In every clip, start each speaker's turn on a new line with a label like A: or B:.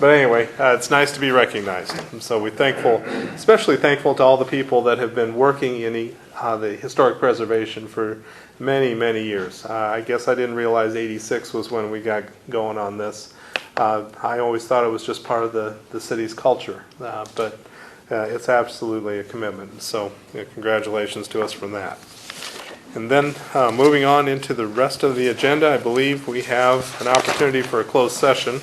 A: But anyway, uh, it's nice to be recognized. And so we're thankful, especially thankful to all the people that have been working in the, uh, the historic preservation for many, many years. Uh, I guess I didn't realize 86 was when we got going on this. Uh, I always thought it was just part of the, the city's culture, uh, but uh, it's absolutely a commitment. So yeah, congratulations to us from that. And then, uh, moving on into the rest of the agenda, I believe we have an opportunity for a closed session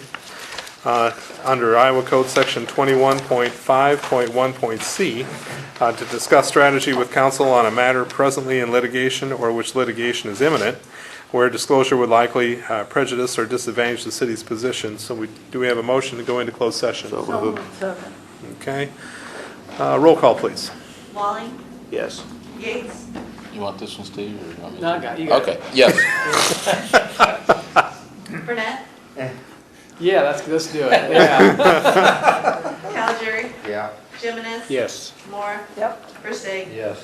A: uh, under Iowa Code Section 21.5.1.c uh, to discuss strategy with counsel on a matter presently in litigation or which litigation is imminent, where disclosure would likely uh, prejudice or disadvantage the city's position. So we, do we have a motion to go into closed session?
B: Second.
A: Okay. Uh, Roll call, please.
C: Walling,
D: Yes.
C: Yates,
E: You want this one, Steve, or you want me
B: No, I
E: to?
B: got, you got it.
E: Okay, yes.
C: Burnett,
B: Eh. Yeah, that's, let's do it, yeah.
C: Calgery,
D: Yeah.
C: Jimenez.
B: Yes.
C: Moore. Yep. Persig.
D: Yes.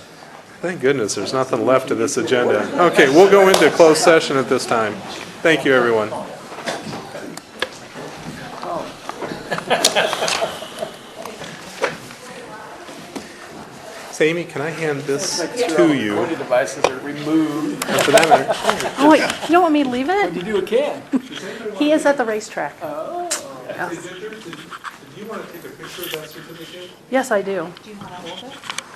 A: Thank goodness, there's nothing left of this agenda. Okay, we'll go into closed session at this time. Thank you, everyone. So, Amy, can I hand this to you?
B: Recording devices are removed.
A: And for that matter-
F: Oh, wait, you don't want me to leave it?
B: You do a can.
F: He is at the racetrack.
A: Did you want to take a picture of that certificate?
F: Yes, I do.
C: Do you want to hold it?